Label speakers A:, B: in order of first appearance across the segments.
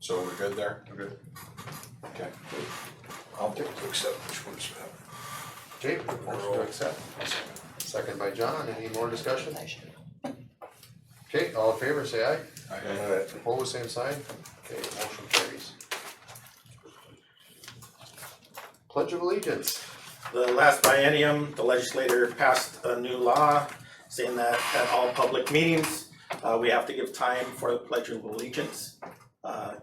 A: So we're good there?
B: Okay.
A: Okay.
C: I'll move to accept which ones you have.
B: Jake, motion to accept. Second by John, any more discussion? Okay, all in favor, say aye.
A: I-
B: Opposed, same sign. Okay, motion carries. Pledge of Allegiance.
D: The last biennium, the legislator passed a new law saying that at all public meetings, uh, we have to give time for the pledge of allegiance. Uh,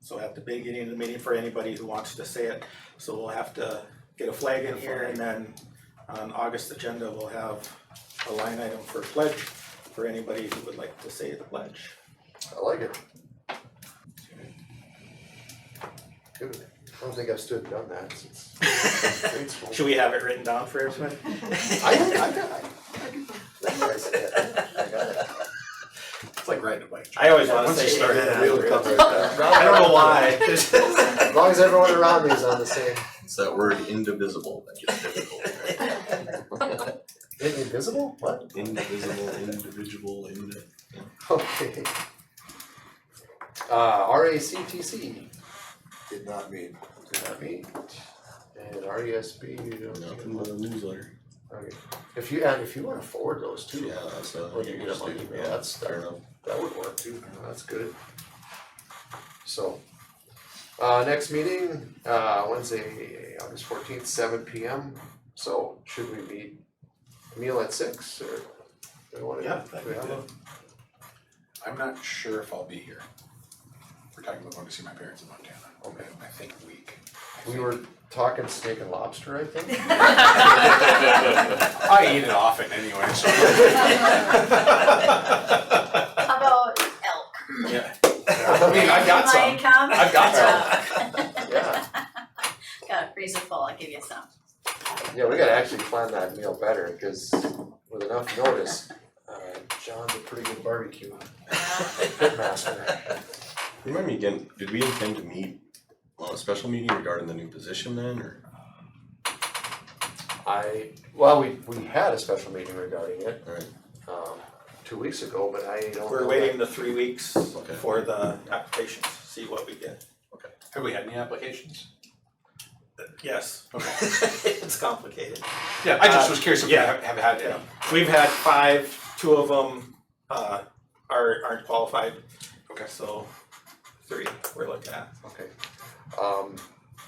D: So at the beginning of the meeting for anybody who wants to say it, so we'll have to get a flag in here and then on August agenda, we'll have a line item for pledge for anybody who would like to say the pledge.
B: I like it. Good. I don't think I've stood and done that since. grade school.
D: Should we have it written down for everyone?
B: I, I got, I, I guess, yeah, I got it.
E: It's like riding a bike.
D: I always wanna
E: Once you
D: say
E: start
D: amen
E: that,
D: after
E: it'll
D: it.
E: come
D: I don't know why.
B: As long as everyone around me is on the same,
E: It's that word indivisible that gets difficult. right?
B: is it invisible? What?
E: Indivisible, individual, indi-
B: Okay. Uh, RACTC
C: Did not mean.
B: did not meet, and RESB, you don't.
E: nothing but a newsletter.
B: Okay. If you, and if you wanna forward those too.
E: Yeah, that's uh,
B: Or you get them on
E: interesting.
B: email,
E: Yeah,
B: that's-
E: fair enough.
B: That would work too, that's good. So, uh, next meeting, uh, Wednesday, August fourteenth, seven P M, so should we meet meal at six or? do we wanna-
D: Yeah, that'd
B: do we
D: be
B: have
D: good.
A: I'm not sure if I'll be here. We're talking about going to see my parents in Montana. Okay. I think week.
B: a- We were talking steak and lobster, I think.
A: I eat it often anyway, so.
F: How about elk?
A: Yeah. I mean, I got
F: Lion
A: some.
F: come?
A: I've got
B: Yeah,
F: Got a freezer full, I'll give you some.
B: yeah, we gotta actually plan that meal better, cause with enough notice, uh, John's a pretty good barbecue
F: Uh,
B: pitmaster.
E: Remind me again, did we intend to meet on a special meeting regarding the new position then, or?
B: I, well, we, we had a special meeting regarding it,
E: Alright,
B: um, two weeks ago, but I don't. know
D: We're
B: that-
D: waiting the three weeks
E: Okay.
D: for the applications, see what we get.
A: Have we had any applications?
D: Yes,
A: Okay.
D: it's complicated.
A: Yeah, I just was curious if we
D: yeah.
A: have have had any.
D: We've had five, two of them uh are aren't qualified.
A: Okay.
D: So three we're looking at.
B: Okay, um,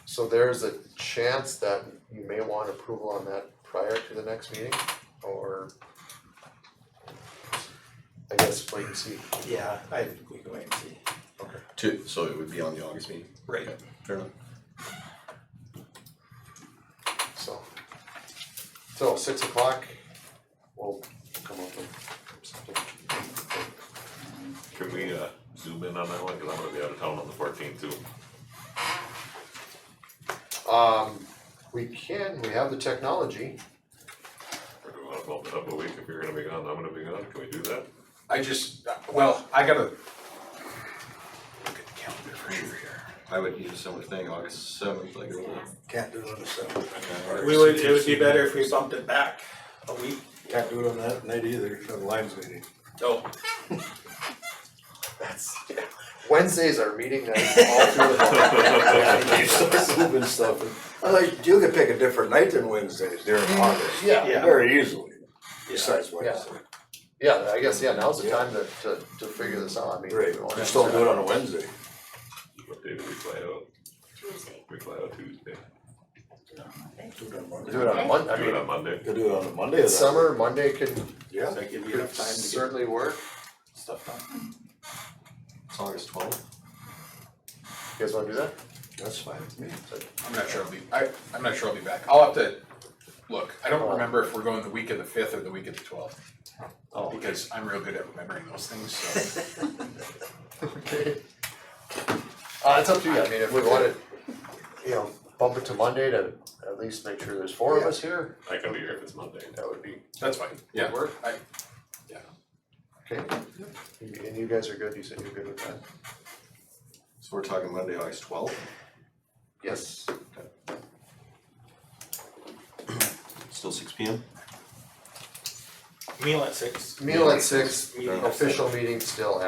B: so there's a chance that you may want approval on that prior to the next meeting, or? I guess wait and see,
D: Yeah, I we can wait and see.
E: two, so it would be on the August meeting?
D: Right.
E: Okay, Fair enough.
B: so. So six o'clock, we'll come up with something.
G: Can we uh zoom in on that one, cause I'm gonna be out of town on the fourteenth too.
B: Um, we can, we have the technology,
G: Or do we wanna bump it up a week, if you're gonna be gone, I'm gonna be gone, can we do that?
A: I just, well, I gotta look at the calendar for sure here.
E: I would do a similar thing, August seventh, like.
C: Can't do it on the seventh.
D: We would, it would be better if we bumped it back a week.
C: Can't do it on that night either, for the Lions meeting.
D: No,
B: that's, Wednesdays are meeting nights all through the month.
C: You're so zooming stuff. I like, you could pick a different night than Wednesdays during August.
B: Yeah.
D: Yeah.
C: Very easily,
D: yeah,
C: besides Wednesday.
B: Yeah, I guess, yeah, now's the
C: Yeah.
B: time to, to, to figure this out, I mean.
C: Right,
B: we won't
C: just
B: have
C: don't
B: to-
C: do it on a Wednesday.
G: What day do we fly out?
F: Tuesday.
G: We fly out Tuesday,
C: Do it on
B: Do it on a
C: Monday.
B: Mon, I
G: do it
B: mean,
G: on Monday,
C: Could do it on a Monday.
B: it's
C: then.
B: summer, Monday can,
C: Yeah.
D: so give you
B: could
D: enough time to
B: certainly work,
D: get stuff done.
E: It's August twelfth,
B: you guys wanna do that?
C: That's fine.
A: I'm not sure I'll be, I, I'm not sure I'll be back. I'll have to look. I don't remember if we're going the week of the fifth or the week of the twelfth.
B: Oh.
A: Because I'm real good at remembering those things, so.
B: Okay. Uh, it's up to you, I mean, if we wanna, you know, bump it to Monday to at least make sure there's four of us here,
G: I can be here if it's Monday.
B: that would be,
A: That's fine, yeah.
B: work.
A: I-
B: okay? And and you guys are good, you said you're good with that?
E: so we're talking Monday, August twelfth?
B: Yes.
E: Still six P M?
D: Meal at six.
B: Meal at six,
D: Meeting at
B: official meeting still